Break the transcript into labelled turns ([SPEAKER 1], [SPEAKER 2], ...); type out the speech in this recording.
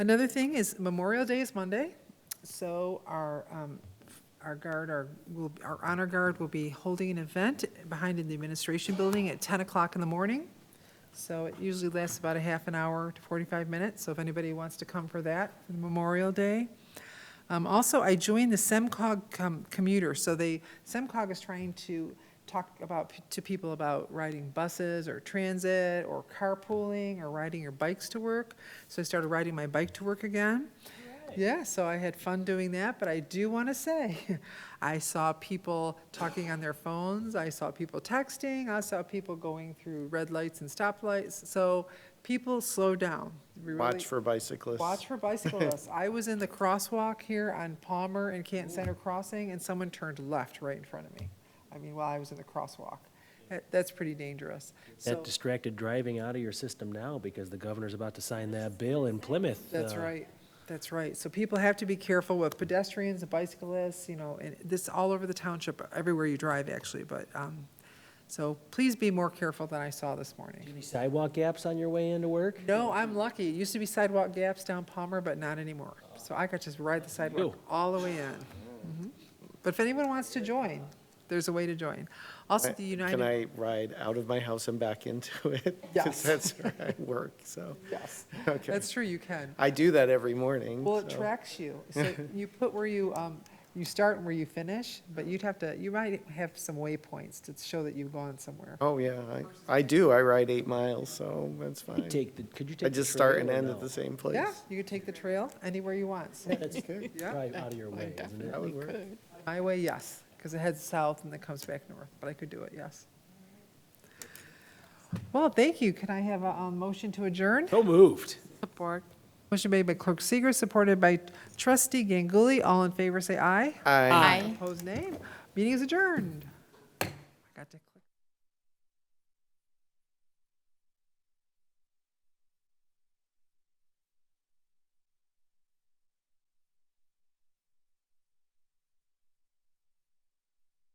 [SPEAKER 1] Another thing is Memorial Day is Monday, so our, um, our guard, our, will- our honor guard will be holding an event behind in the administration building at 10 o'clock in the morning. So it usually lasts about a half an hour to 45 minutes, so if anybody wants to come for that, for Memorial Day. Um, Also, I joined the SEMCOG com- commuter, so they, SEMCOG is trying to talk about, to people about riding buses or transit or carpooling or riding your bikes to work. So I started riding my bike to work again. Yeah, so I had fun doing that, but I do want to say, I saw people talking on their phones, I saw people texting, I saw people going through red lights and stoplights, so people slow down. We really-
[SPEAKER 2] Watch for bicyclists.
[SPEAKER 1] Watch for bicyclists. I was in the crosswalk here on Palmer and Canton Center Crossing, and someone turned left right in front of me. I mean, while I was in the crosswalk. That- That's pretty dangerous. So,
[SPEAKER 3] That distracted driving out of your system now because the governor's about to sign that bill in Plymouth.
[SPEAKER 1] that's
[SPEAKER 3] uh,
[SPEAKER 1] right, that's right. So people have to be careful with pedestrians and bicyclists, you know, and this all over the township, everywhere you drive, actually, but, um, so please be more careful than I saw this morning.
[SPEAKER 3] Any sidewalk gaps on your way into work?
[SPEAKER 1] No, I'm lucky. It used to be sidewalk gaps down Palmer, but not anymore. So I could just ride the sidewalk
[SPEAKER 3] Ew.
[SPEAKER 1] all the way in. Mhm. But if anyone wants to join, there's a way to join. Also, the
[SPEAKER 2] Can
[SPEAKER 1] United,
[SPEAKER 2] I ride out of my house and back into it?
[SPEAKER 1] Yes.
[SPEAKER 2] Because that's where I work, so.
[SPEAKER 1] yes,
[SPEAKER 2] Okay.
[SPEAKER 1] that's true, you can.
[SPEAKER 2] I do that every morning.
[SPEAKER 1] Well, it
[SPEAKER 2] Um, so-
[SPEAKER 1] tracks you. So you put where you, um, you start and where you finish, but you'd have to, you might have some waypoints to show that you've gone somewhere.
[SPEAKER 2] Oh, yeah, I, I do. I ride eight miles, so that's
[SPEAKER 3] Could you
[SPEAKER 2] fine.
[SPEAKER 3] take, the- could you take?
[SPEAKER 2] I
[SPEAKER 3] the
[SPEAKER 2] just start
[SPEAKER 3] trail
[SPEAKER 2] and
[SPEAKER 3] or
[SPEAKER 2] end
[SPEAKER 3] no?
[SPEAKER 2] at the same place.
[SPEAKER 1] Yeah, you could take the trail anywhere you want. So
[SPEAKER 3] That's probably out of your way, isn't it?
[SPEAKER 2] That would work.
[SPEAKER 1] My way, yes, because it heads south and then comes back north, but I could do it, yes. Well, thank you. Can I have a um, motion to adjourn?
[SPEAKER 3] So moved.
[SPEAKER 1] Support. Motion made by Clerk Seeger, supported by Trustee Ganguly. All in favor, say aye.
[SPEAKER 2] I.
[SPEAKER 4] Aye.
[SPEAKER 1] Opposed, nay. Meeting is adjourned. I got to-